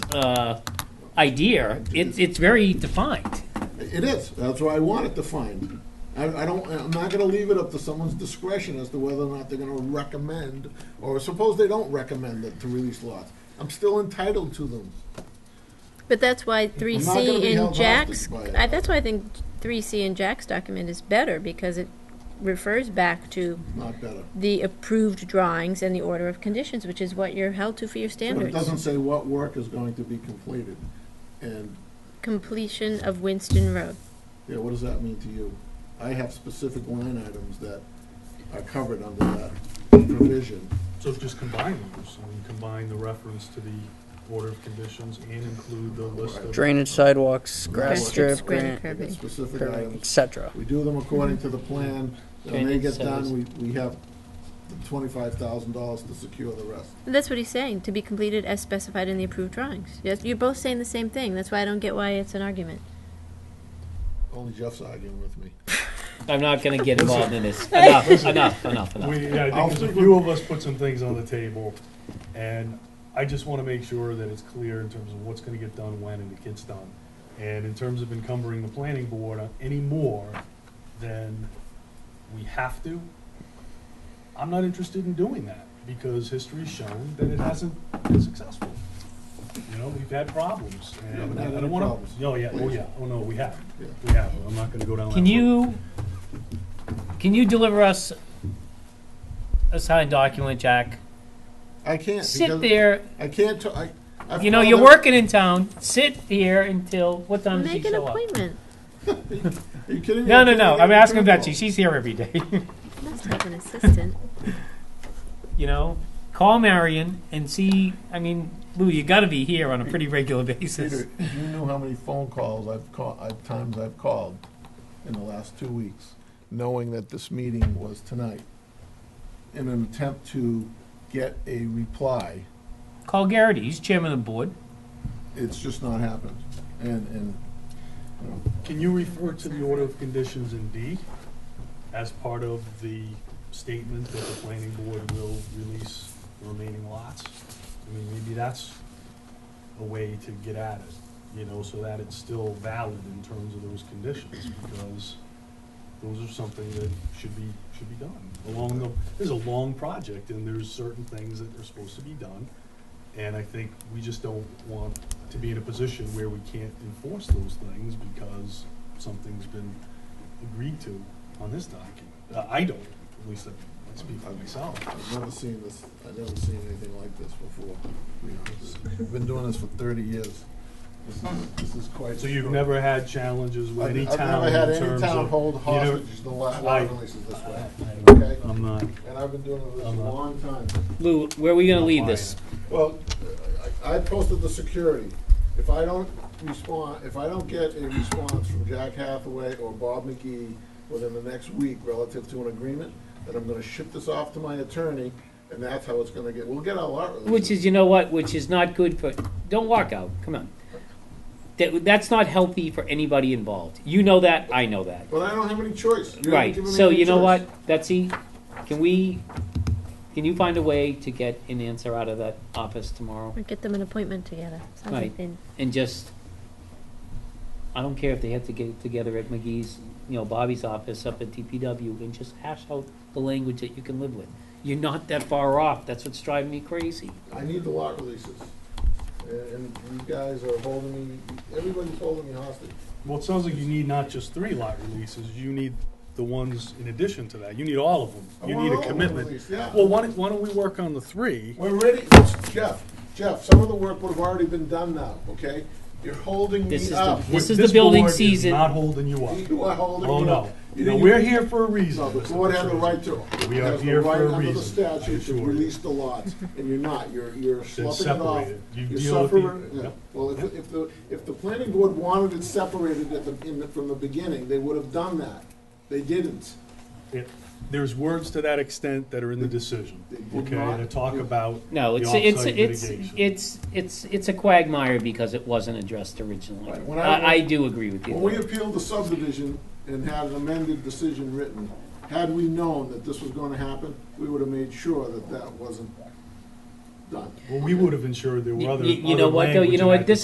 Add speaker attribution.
Speaker 1: uh, idea, it's, it's very defined.
Speaker 2: It is, that's why I want it defined. I, I don't, I'm not gonna leave it up to someone's discretion as to whether or not they're gonna recommend, or suppose they don't recommend it to release lots. I'm still entitled to them.
Speaker 3: But that's why three
Speaker 2: I'm not gonna be
Speaker 3: C and
Speaker 2: held
Speaker 3: Jack's,
Speaker 2: hostage by
Speaker 3: I,
Speaker 2: that.
Speaker 3: that's why I think three C and Jack's document is better because it refers back to
Speaker 2: Not better.
Speaker 3: the approved drawings and the order of conditions, which is what you're held to for your
Speaker 2: But it doesn't
Speaker 3: standards.
Speaker 2: say what work is going to be completed. And,
Speaker 3: Completion of Winston Road.
Speaker 2: yeah, what does that mean to you? I have specific line items that are covered under that provision.
Speaker 4: So just combine those, I mean, combine the reference to the order of conditions and include the list of.
Speaker 5: Drainage sidewalks, grass
Speaker 3: Grass strips,
Speaker 5: strip,
Speaker 3: granite
Speaker 5: granite,
Speaker 2: I got
Speaker 3: curbing.
Speaker 2: specific
Speaker 5: curbing,
Speaker 2: items.
Speaker 5: etc.
Speaker 2: We do them according to the plan, and they
Speaker 1: Training
Speaker 2: get done, we,
Speaker 1: service.
Speaker 2: we have twenty-five thousand dollars to secure the rest.
Speaker 3: And That's what he's saying, to be completed as specified in the approved drawings. Yes, you're both saying the same thing, that's why I don't get why it's an argument.
Speaker 2: Only Jeff's arguing with me.
Speaker 1: I'm not gonna get involved in this. Enough, enough, enough, enough.
Speaker 4: We, yeah, I
Speaker 2: I'll
Speaker 4: think there's
Speaker 2: stick
Speaker 4: a few of us put some things on the table, and I just wanna make sure that it's clear in terms of what's gonna get done, when, and it gets done. And in terms of encumbering the planning board on any more than we have to, I'm not interested in doing that, because history's shown that it hasn't been successful. You know, we've had problems,
Speaker 2: Yeah,
Speaker 4: and
Speaker 2: but not
Speaker 4: I
Speaker 2: any
Speaker 4: don't wanna,
Speaker 2: problems.
Speaker 4: oh, yeah, oh,
Speaker 2: Please.
Speaker 4: yeah, oh, no, we have,
Speaker 2: Yeah.
Speaker 4: we have, I'm not gonna go down that road.
Speaker 1: Can you, can you deliver us a signed document, Jack?
Speaker 2: I can't.
Speaker 1: Sit
Speaker 2: because
Speaker 1: there,
Speaker 2: I can't, t- I. I've
Speaker 1: you know,
Speaker 2: called
Speaker 1: you're
Speaker 2: him-
Speaker 1: working in town, sit here until, what time does she
Speaker 3: Make an
Speaker 1: show up?
Speaker 3: appointment,
Speaker 2: Are you kidding me?
Speaker 1: No,
Speaker 2: I
Speaker 1: no,
Speaker 2: can't
Speaker 1: no,
Speaker 2: even
Speaker 1: I'm
Speaker 2: get a
Speaker 1: asking
Speaker 2: phone
Speaker 1: Betsy,
Speaker 2: call.
Speaker 1: she's here every day,
Speaker 3: must have an assistant.
Speaker 1: you know? Call Marion and see, I mean, Lou, you gotta be here on a pretty regular basis.
Speaker 2: Peter, if you knew how many phone calls I've called, I've, times I've called in the last two weeks, knowing that this meeting was tonight, in an attempt to get a reply.
Speaker 1: Call Garrity, he's chairman of the board.
Speaker 2: It's just not happened. And, and
Speaker 4: Can you refer to the order of conditions in D as part of the statement that the planning board will release the remaining lots? I mean, maybe that's a way to get at it, you know, so that it's still valid in terms of those conditions, because those are something that should be, should be done. Along the, this is a long project, and there's certain things that are supposed to be done, and I think we just don't want to be in a position where we can't enforce those things because something's been agreed to on this document. Uh, I don't, at least I speak for myself.
Speaker 2: I've never seen this, I've never seen anything like this before. to be honest. I've been doing this for thirty years. This is, this is quite.
Speaker 4: So you've never had challenges with any town
Speaker 2: I've never had
Speaker 4: in
Speaker 2: any
Speaker 4: terms
Speaker 2: town
Speaker 4: of?
Speaker 2: hold
Speaker 4: you know-
Speaker 2: hostages, the lot
Speaker 4: I-
Speaker 2: releases this way,
Speaker 4: I-
Speaker 2: okay?
Speaker 4: I'm not,
Speaker 2: And I've been doing this a
Speaker 4: I'm uh, not-
Speaker 2: long time.
Speaker 1: Lou, where are we gonna
Speaker 4: Not
Speaker 1: leave
Speaker 4: buying
Speaker 1: this?
Speaker 4: it.
Speaker 2: Well, I I posted the security. If I don't respond, if I don't get a response from Jack Hathaway or Bob McGee within the next week relative to an agreement, then I'm gonna ship this off to my attorney, and that's how it's gonna get, we'll get our lot releases.
Speaker 1: Which is, you know what, which is not good for, don't walk out, come on. That, that's not healthy for anybody involved. You know that, I know that.
Speaker 2: But I don't have any choice. You haven't
Speaker 1: Right,
Speaker 2: given me
Speaker 1: so
Speaker 2: any
Speaker 1: you know
Speaker 2: choice.
Speaker 1: what, Betsy, can we, can you find a way to get an answer out of that office tomorrow?
Speaker 3: Or get them an appointment together. Sounds
Speaker 1: Right.
Speaker 3: like they
Speaker 1: And just, I don't care if they have to get it together at McGee's, you know, Bobby's office up at DPW, and just hash out the language that you can live with. You're not that far off, that's what's driving me crazy.
Speaker 2: I need the lot releases. And and you guys are holding me, everybody's holding me hostage.
Speaker 4: well, it sounds like you need not just three lot releases, you need the ones in addition to that. You need all of them.
Speaker 2: I
Speaker 4: You
Speaker 2: want
Speaker 4: need
Speaker 2: Oh, all
Speaker 4: a
Speaker 2: of them
Speaker 4: commitment.
Speaker 2: released, yeah.
Speaker 4: Well, why don't, why don't we work on the three?
Speaker 2: We're ready, Listen, Jeff, Jeff, some of the work would have already been done now, okay? You're holding
Speaker 1: This is
Speaker 2: me
Speaker 1: the-
Speaker 2: up.
Speaker 1: This is the building
Speaker 4: board is
Speaker 1: season.
Speaker 4: not holding you up.
Speaker 2: You are holding
Speaker 4: Oh,
Speaker 2: me
Speaker 4: no.
Speaker 2: up. You
Speaker 4: No,
Speaker 2: didn't-
Speaker 4: we're here for a reason.
Speaker 2: No, the
Speaker 4: Mr.
Speaker 2: board had the
Speaker 4: President.
Speaker 2: right to,
Speaker 4: We are
Speaker 2: has the
Speaker 4: here for
Speaker 2: right
Speaker 4: a
Speaker 2: under the
Speaker 4: reason, I
Speaker 2: statute
Speaker 4: assure
Speaker 2: to
Speaker 4: you.
Speaker 2: release the lots, and you're not, you're, you're sloughing it off.
Speaker 4: separated. You
Speaker 2: You're
Speaker 4: deal with the-
Speaker 2: suffering- yeah.
Speaker 4: yep.
Speaker 2: Well, if, if the, if the planning board wanted it separated at the, in the, from the beginning, they would have done that. They didn't.
Speaker 4: It- There's words to that extent that are in the decision,
Speaker 2: Did
Speaker 4: okay,
Speaker 2: not-
Speaker 4: that talk about the
Speaker 1: No, it's,
Speaker 4: offsite
Speaker 1: it's, it's,
Speaker 4: mitigation.
Speaker 1: it's, it's, it's a quagmire because it wasn't addressed originally.
Speaker 2: Right, when I-
Speaker 1: I, I do agree with you.
Speaker 2: When we appealed the subdivision and had an amended decision written, had we known that this was gonna happen, we would have made sure that that wasn't done.
Speaker 4: Well, we would have ensured there
Speaker 1: You-
Speaker 4: were other.
Speaker 1: you- You know
Speaker 4: other
Speaker 1: what, though,
Speaker 4: language
Speaker 1: you know
Speaker 4: in
Speaker 1: what,
Speaker 4: that
Speaker 1: this